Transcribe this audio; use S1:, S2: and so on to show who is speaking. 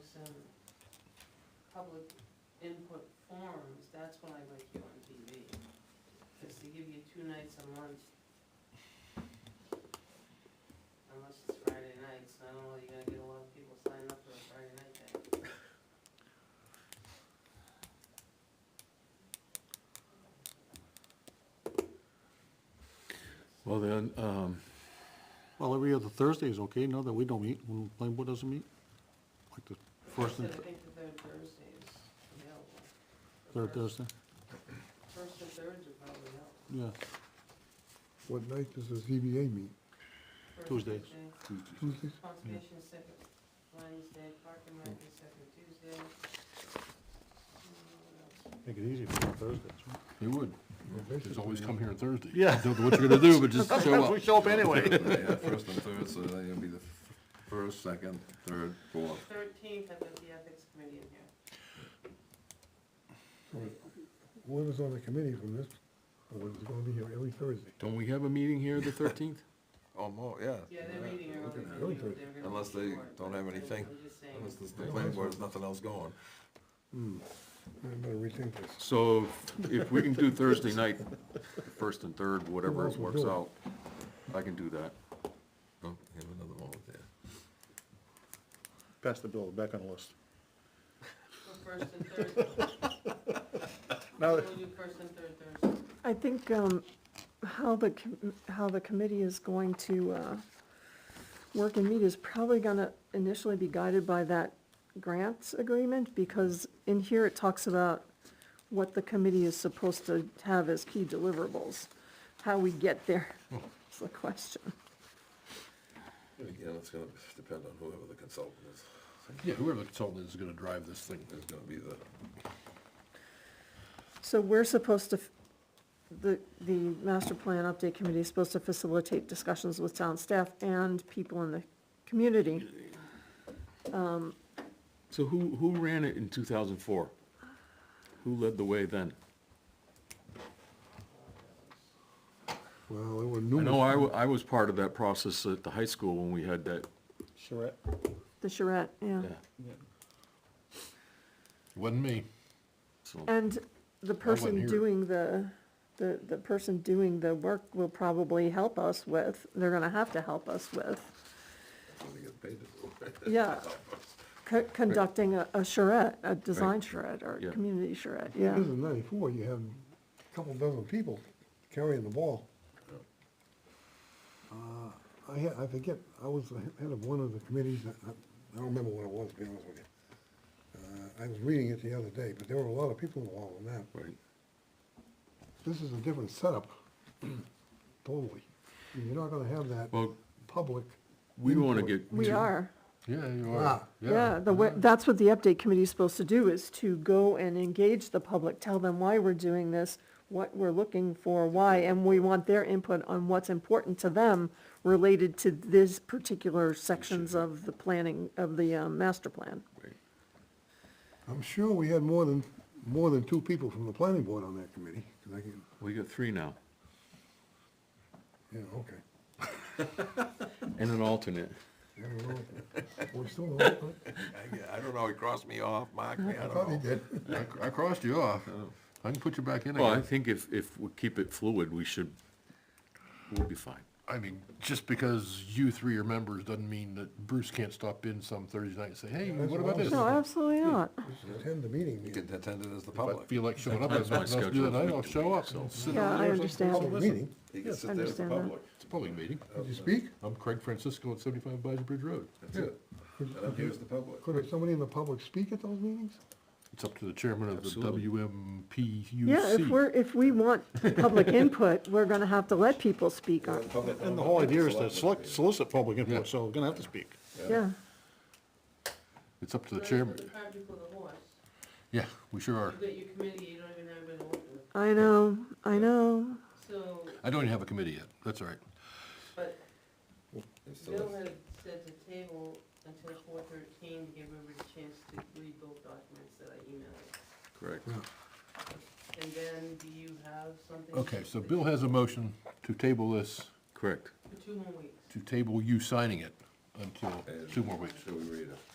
S1: public input forums, that's when I like you on TV. Because they give you two nights a month. Unless it's Friday nights, and I don't know, you're gonna get a lot of people signing up for a Friday night thing.
S2: Well, then, um,
S3: Well, every other Thursday is okay, now that we don't meet, when the planning board doesn't meet. Like the first
S1: I
S3: and
S1: said I think the third Thursday is available. The
S3: third
S1: first-
S3: Thursday,
S1: First and thirds are probably out.
S3: yeah.
S4: What night does the ZBA meet?
S1: First
S3: Tuesdays.
S1: Tuesday,
S4: Tuesdays?
S1: Conservation is second Wednesday, Park and Rec is second Tuesday. Mm, what else?
S3: Make it easy for Thursdays,
S2: you would,
S4: Basically,
S5: Just always come here on Thursday.
S3: Yeah.
S5: Don't know what you're gonna do, but just show
S3: We
S5: up.
S3: show up anyway.
S6: Yeah, first and third, so they're gonna be the f- first, second, third, fourth.
S1: Thirteenth, I've got the ethics committee in here.
S4: Whoever's on the committee from this board is gonna be here every Thursday.
S5: Don't we have a meeting here the thirteenth?
S6: Oh, more, yeah.
S1: Yeah, they're meeting
S6: Look
S1: early.
S6: at
S1: but
S6: that.
S1: they were- they were gonna
S6: Unless
S1: be
S6: they
S1: short,
S6: don't
S1: but
S6: have
S1: I'm
S6: anything.
S1: just saying.
S6: Unless the planning board has nothing else going.
S4: I better rethink this.
S5: So if we can do Thursday night, first and third, whatever
S4: else will
S5: works
S4: do it?
S5: out, I can do that.
S6: Oh, you have another one there.
S3: Pass the bill, back on the list.
S1: So first and third,
S3: Now,
S1: we'll do first and third Thursday.
S7: I think, um, how the, com- how the committee is going to, uh, work and meet is probably gonna initially be guided by that grants agreement, because in here it talks about what the committee is supposed to have as key deliverables. How we get there is the question.
S6: Again, it's gonna depend on whoever the consultant is.
S5: Yeah, whoever the consultant is is gonna drive this thing.
S6: There's gonna be the,
S7: So we're supposed to, f- the, the master plan update committee is supposed to facilitate discussions with town staff and people in the community.
S5: So who, who ran it in two thousand four? Who led the way then?
S4: Well, there were
S5: I know I,
S4: numerous,
S5: wa- I was part of that process at the high school when we had that,
S3: Charette,
S7: The charrette, yeah.
S5: yeah.
S6: Wasn't me.
S3: Ah.
S5: So,
S7: And the person
S5: here.
S7: doing the, the, the person doing the work will probably help us with, they're gonna have to help us with,
S6: When they get paid to do it.
S7: yeah, co- conducting a, a charrette, a design
S5: Right.
S7: charrette or
S5: Yeah.
S7: a community charrette,
S4: this
S7: yeah.
S6: Mm-hmm.
S4: is ninety-four, you have a couple dozen people carrying the ball. Uh, I had, I forget, I was the he- head of one of the committees, I, I I don't remember what it was, to be honest with you. Uh, I was reading it the other day, but there were a lot of people involved in that.
S5: Right.
S4: This is a different setup, totally. And You're not gonna have that
S5: Well,
S4: public.
S5: we don't wanna
S4: input.
S5: get.
S7: We
S5: too-
S7: are,
S5: Yeah, you
S4: Ah.
S7: yeah, Mm-hmm. the, way- that's what the update committee is supposed to do, is to go and engage the public, tell them why we're doing this, what we're looking for, why, and we want their input on what's important to them related to this particular sections of the planning, of the, um, master plan.
S4: I'm sure we had more than, more than two people from the planning board on that committee, 'cause I can,
S5: We got three now,
S4: yeah, okay.
S5: and an alternate.
S4: I don't know. We're still on it, right?
S6: I, I don't know, he crossed me off, marked me, I
S4: I thought he
S6: don't know.
S4: did.
S5: I crossed you off.
S6: Oh.
S5: I can put you back in Well, I think if, if we keep it fluid, we should, we'll be fine.
S8: I mean, just because you three are members doesn't mean that Bruce can't stop in some Thursday night and say, hey,
S4: That's
S8: what about
S4: what I
S8: this?
S7: No, absolutely not.
S4: Attend the meeting,
S6: You
S4: meeting.
S6: can attend it as the
S8: If I
S6: public.
S8: feel like showing up, I
S5: That's my
S8: to do
S5: schedule
S8: that night,
S5: for
S8: I'll
S5: the
S8: show up.
S5: meeting,
S8: Sit
S7: Yeah,
S8: down
S7: I
S8: there or
S7: understand.
S8: something.
S4: meeting.
S6: You can sit there as the
S7: understand that.
S6: public.
S8: It's a public meeting.
S4: Did you speak?
S8: I'm Craig Francisco at seventy-five Bayou Bridge Road.
S6: That's it. And I'm here as the public.
S4: Could somebody in the public speak at those meetings?
S8: It's up to the chairman of the
S5: Absolutely.
S8: WMPUC.
S7: Yeah, if we're, if we want public input, we're gonna have to let people speak on, it.
S3: and the whole idea is to select, solicit public input, so we're gonna have to speak.
S7: yeah.
S8: It's up to the
S1: Third,
S8: chairman.
S1: The cart before the horse.
S8: Yeah, we sure are.
S1: You got your committee, you don't even have an order.
S7: I know, I know.
S1: So,
S8: I don't even have a committee yet. That's all right.
S1: but
S6: It's still-
S1: Bill had said to table until four thirteen to give everybody a chance to read both documents that I emailed.
S6: Correct.
S1: And then, do you have something?
S8: Okay, so Bill has a motion to table this,
S5: Correct.
S1: For two more weeks.
S8: to table you signing it until two more weeks.
S6: Shall we read it?